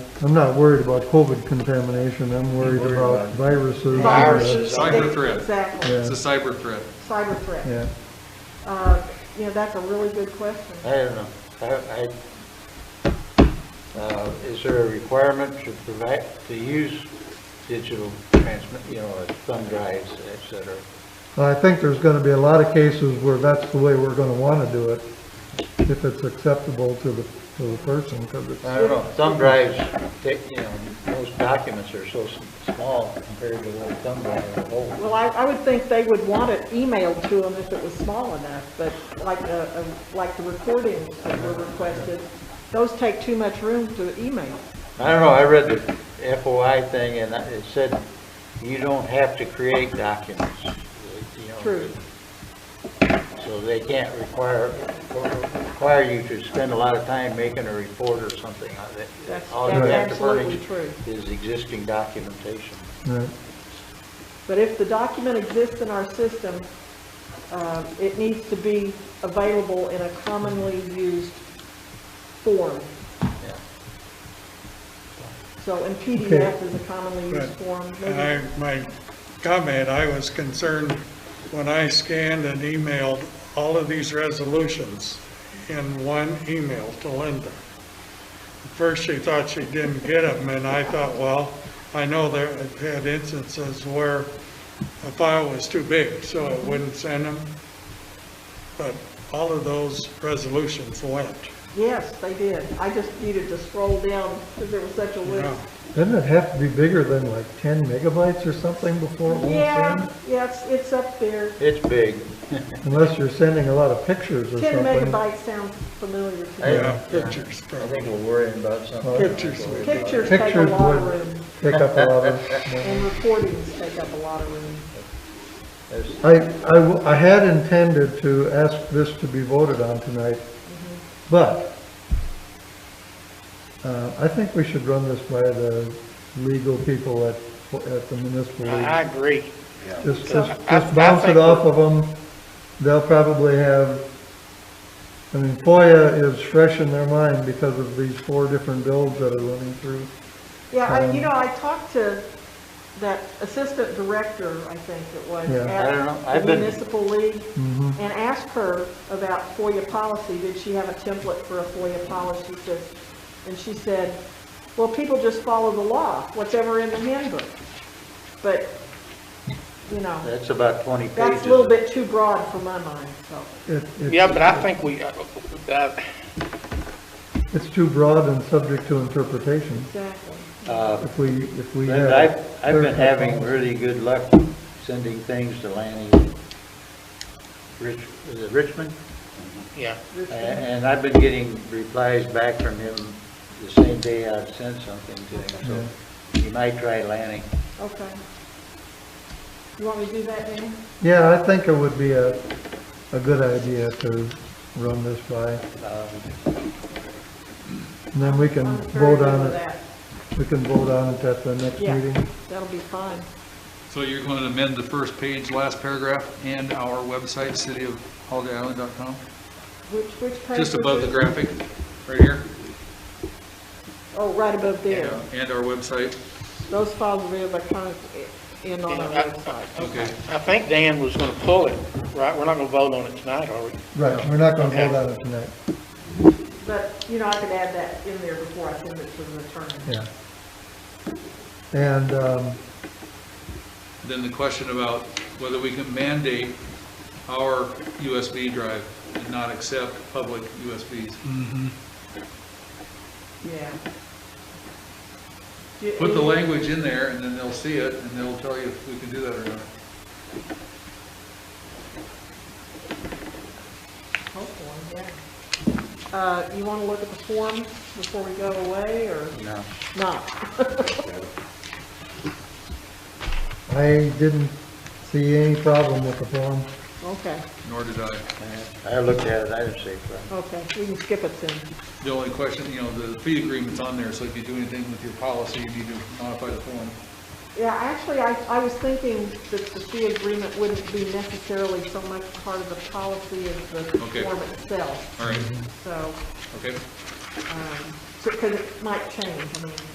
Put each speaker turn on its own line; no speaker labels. I'm not worried about COVID contamination, I'm worried
Worried
about
about
viruses.
Viruses.
Cyber
they-
threat.
Exactly,
Yeah.
It's a cyber threat.
cyber threat.
Yeah,
Uh, You know, that's a really good question.
I don't know. I, I, uh, is there a requirement to provide, to use digital transmit, you know, like thumb drives, et cetera?
I think there's gonna be a lot of cases where that's the way we're gonna wanna do it, if it's acceptable to the, to the person, because it's,
I don't know. Thumb drives, they, you know, most documents are so s- small compared to what a thumb drive is. Oh,
Well, I, I would think they would want it emailed to them if it was small enough, but like, uh, uh, like the recordings that were requested, those take too much room to email.
I don't know. I read the FOI thing and I- it said you don't have to create documents. you know,
True.
So they can't require, require you to spend a lot of time making a report or something on it.
That's-
All you
that's
have to
absolutely
furnish
true.
Is existing documentation.
yeah.
But if the document exists in our system, uh, it needs to be available in a commonly used form.
Yeah.
So, and PDF is a commonly used form.
But
Maybe-
I, my comment, I was concerned when I scanned and emailed all of these resolutions in one email to Linda. At First, she thought she didn't get them, and I thought, well, I know there, I've had instances where a file was too big, so it wouldn't send them. But all of those resolutions went.
Yes, they did. I just needed to scroll down because there was such a
Yeah.
list.
Doesn't it have to be bigger than like ten megabytes or something before it won't
Yeah,
send?
yes, it's up there.
It's big.
Unless you're sending a lot of pictures or
10
something.
megabytes sounds familiar to me.
Yeah, pictures,
I
probably.
think we're worrying about something.
Pictures would-
Pictures take a
Pictures
lot of
would
room,
take up a lot of, yeah.
and recordings take up a lot of room.
That's-
I, I w- I had intended to ask this to be voted on tonight, but uh, I think we should run this by the legal people at, at the municipal league.
I agree.
Just,
So,
just
I-
just
I
bounce it
think
off of them. They'll probably have, I mean, FOIA is fresh in their mind because of these four different bills that are running through.
Yeah, I,
Um,
you know, I talked to that assistant director, I think it was,
Yeah. Mm-hmm.
I don't know.
at
I've
the
been-
municipal league, and asked her about FOIA policy, did she have a template for a FOIA policy? She says- And she said, well, people just follow the law, whatever in the handbook. But, you know,
That's about 20 pages.
that's a little bit too broad for my mind, so.
It- it's-
Yeah, but I think we, uh, uh,
It's too broad and subject to interpretation.
Exactly.
Uh,
If we, if we have.
But I've, I've been
clarify
having
things.
really good luck sending things to Lanny, Rich, is it Richmond?
yeah.
A- And I've been getting replies back from him the same day I've sent something to him, so you might try Lanny.
Okay. You want me to do that, Dan?
Yeah, I think it would be a, a good idea to run this by,
Uh,
and then we can
I'm very
Um, vote
good
on
with
it,
that.
we can vote on it at the next
Yeah,
meeting.
that'll be fine.
So you're going to amend the first page, last paragraph, and our website, cityofholidayisland.com?
Which, which page? was
Just above the
it?
graphic, right here?
Oh, right above there.
And our website,
Those files will be electronic in on our website.
okay.
I think Dan was going to pull it, right? We're not going to vote on it tonight, are we?
Right, we're not gonna
Okay.
vote on it tonight,
But, you know, I could add that in there before I send it to the attorney.
yeah. And, um,
Then the question about whether we can mandate our USB drive and not accept public USBs.
Yeah. Do you-
Put the
any-
language in there, and then they'll see it, and they'll tell you if we can do that or not.
Hopefully, yeah. Uh, you want to look at the form before we go away or
No.
not?
I didn't see any problem with the form.
Okay,
Nor did I.
I looked at it, I didn't say problem.
okay, we can skip it then.
The only question, you know, the fee agreement's on there, so if you do anything with your policy, you need to modify the form.
Yeah, actually, I, I was thinking that the fee agreement wouldn't be necessarily so much part of the policy as the
Okay.
form itself,
All right,
so,
okay?
um, because it might change, I mean.